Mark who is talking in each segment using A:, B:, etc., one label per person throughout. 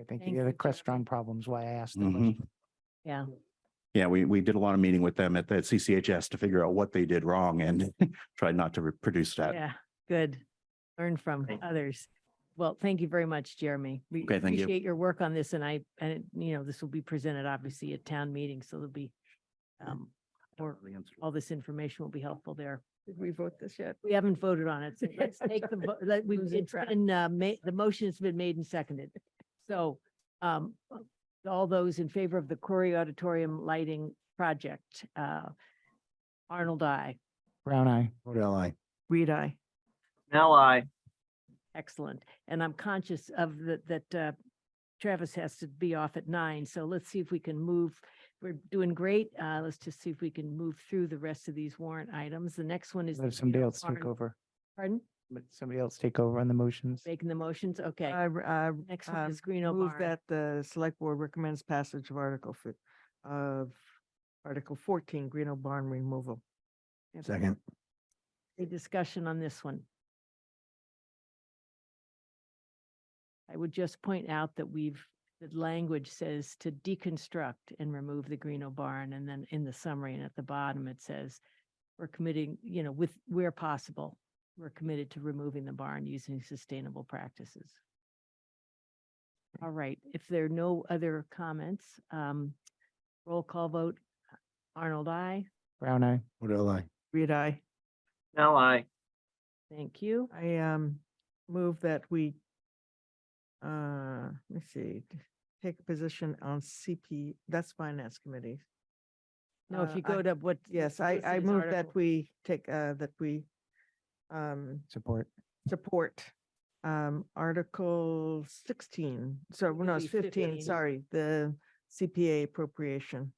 A: I think
B: Thank
A: you
B: you,
A: the
B: Jeremy.
A: Crestron problems, why I asked the
C: Mhm.
A: question.
B: Yeah.
C: Yeah, we, we did a lot of meeting with them at the CCHS to figure out what they did wrong and tried not to reproduce that.
B: Yeah, good. Learn from others. Well, thank you very much, Jeremy. We
C: Okay, thank you.
B: Appreciate your work on this and I, and you know, this will be presented obviously at town meeting, so there'll be um, or all this information will be helpful there.
D: Did we vote this yet?
B: We haven't voted on it, so let's take the, vo- let- we,
D: Losing
B: it's
D: track.
B: been, uh, ma- the motion's been made and seconded. So, um, all those in favor of the Corey Auditorium Lighting Project, uh, Arnold, I.
A: Brown eye.
C: Model I.
D: Reed, I.
E: Ally,
B: Excellent. And I'm conscious of that, that uh, Travis has to be off at nine. So let's see if we can move. We're doing great. Uh, let's just see if we can move through the rest of these warrant items. The next one is.
A: Let
B: the
A: somebody
B: Geo
A: else take
B: Farm-
A: over.
B: Pardon?
A: Let somebody else take over on the motions.
B: Making the motions? Okay.
D: I, r- I
B: Next one
D: um,
B: is Greeno
D: Uh, move
B: Barn.
D: that the select board recommends passage of article fif- of article fourteen, Greeno Barn removal.
C: Second.
B: Any discussion on this one? I would just point out that we've, the language says to deconstruct and remove the Greeno barn. And then in the summary and at the bottom, it says, we're committing, you know, with, where possible, we're committed to removing the barn using sustainable practices. All right, if there are no other comments, um, roll call vote. Arnold, I,
A: Brown eye.
C: Model I.
D: Reed, I.
E: Ally,
B: thank you.
D: I um move that we uh, let me see, t- take a position on CP, that's finance committee.
B: No, if
D: Uh,
B: you
D: I-
B: go to what.
D: Yes, I
B: listed
D: I
B: as
D: move
B: article-
D: that we take uh, that we um
A: Support.
D: support um article sixteen, so
B: would
D: no, it's
B: be
D: fifteen,
B: 15.
D: sorry, the CPA appropriation.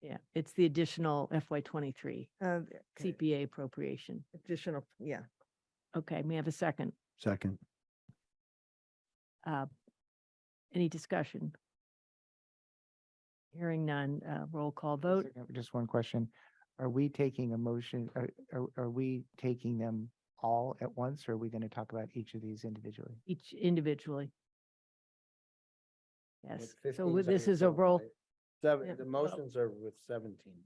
B: Yeah, it's the additional FY twenty-three
D: Uh, th- okay,
B: CPA appropriation.
D: Additional, yeah,
B: Okay, may I have a second?
C: Second.
B: Uh, Any discussion? Hearing none, uh, roll call vote.
A: Second, Just one question. Are we taking a motion, are, are, are we taking them all at once or are we going to talk about each of these individually?
B: each individually. Yes,
F: With
B: so
F: 15
B: with- this
F: separate
B: is a
F: votes,
B: roll,
F: right?
B: Yeah,
F: Seven, the
B: well-
F: motions are with seventeen.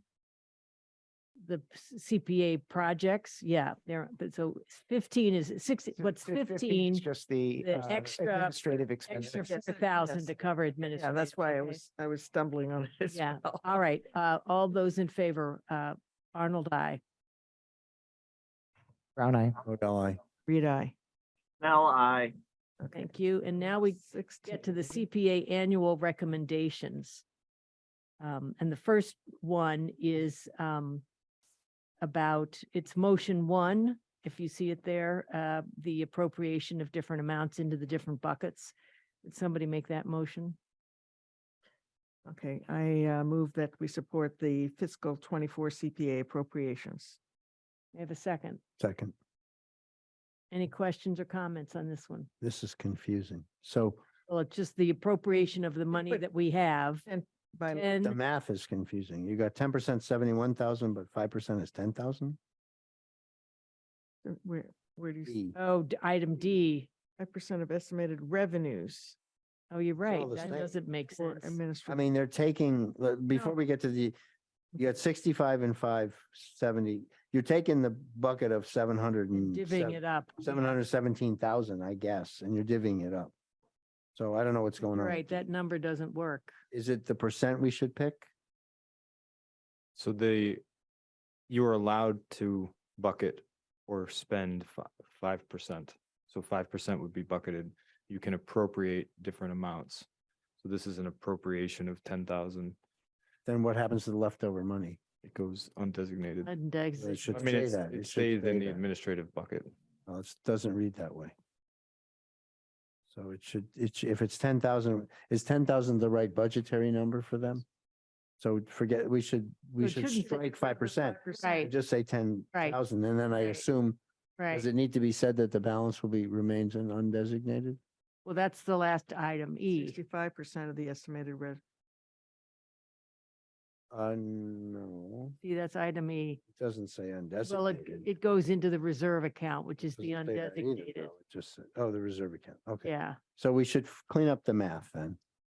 B: the CPA projects, yeah, there, but so fifteen is six,
A: So
B: what's
A: fif- 15 is
B: fifteen?
A: Just the
B: the
A: uh,
B: extra-
A: administrative
B: Extra
A: expenses.
D: Yes,
B: four thousand
D: yes.
B: to cover
D: yeah,
B: administration.
D: that's why I
B: okay?
D: was, I was stumbling on it. as
B: Yeah,
D: well.
B: all right, uh, all those in favor, uh, Arnold, I.
A: Brown eye.
C: Model I.
D: Reed, I.
E: Ally,
D: Okay.
B: Thank you. And now we get to the
D: 16.
B: CPA annual recommendations. Um, and the first one is, um, about, it's motion one, if you see it there, uh, the appropriation of different amounts into the different buckets. Would somebody make that motion?
D: Okay, I uh, move that we support the fiscal twenty-four CPA appropriations.
B: I have a second.
C: Second.
B: Any questions or comments on this one?
C: This is confusing. So
B: Well, it's just the appropriation of the money
D: but-
B: that we have.
D: By,
C: the
B: And
C: math is confusing. You got ten percent seventy-one thousand, but five percent is ten thousand?
D: uh, where, where do
C: E.
D: you,
B: oh, d- item D.
D: five percent of estimated revenues
B: Oh, you're right.
C: all the
B: That
C: same.
B: doesn't make
D: for
B: sense.
C: I
D: administration?
C: mean, they're taking, le- before
B: No.
C: we get to the, you got sixty-five and five seventy, you're taking the bucket of seven hundred and
B: Divvying it up.
C: Hmm, seven hundred seventeen thousand, I guess, and you're divvying it up. So I don't know what's going on.
B: Right, that number doesn't work.
C: Is it the percent we should pick?
G: So they, you are allowed to bucket or spend five percent. So five percent would be bucketed. You can appropriate different amounts. So this is an appropriation of ten thousand.
C: Then what happens to the leftover money?
G: It goes undesignated.
C: Well, It
B: Undesignated.
C: should
G: I mean,
C: say
G: it's-
C: that.
G: it
C: should
G: stays
C: say
G: in the
C: that.
G: administrative bucket.
C: Well, Uh, it doesn't read that way. So it should, it, sh- if it's ten thousand, is ten thousand the right budgetary number for them? So forget, we should,
B: So
C: we
B: it
C: should
B: shouldn't say
C: strike five percent.
B: Right,
C: Just say ten
B: Right.
C: thousand, and then I
B: Right.
C: assume,
B: right.
C: does it need to be said that the balance will be, remains in undesignated?
B: Well, that's the last item, E.
D: Sixty-five percent of the estimated rev,
C: Uh, no,
B: See, that's item E.
C: it doesn't say
B: Well, it,
C: undesignated.
B: it goes into the reserve account, which is the
C: Doesn't say that either,
B: undesignated.
C: though. It Just, said- oh, the reserve account. Okay.
B: Yeah.
C: So we should f- clean up the math then.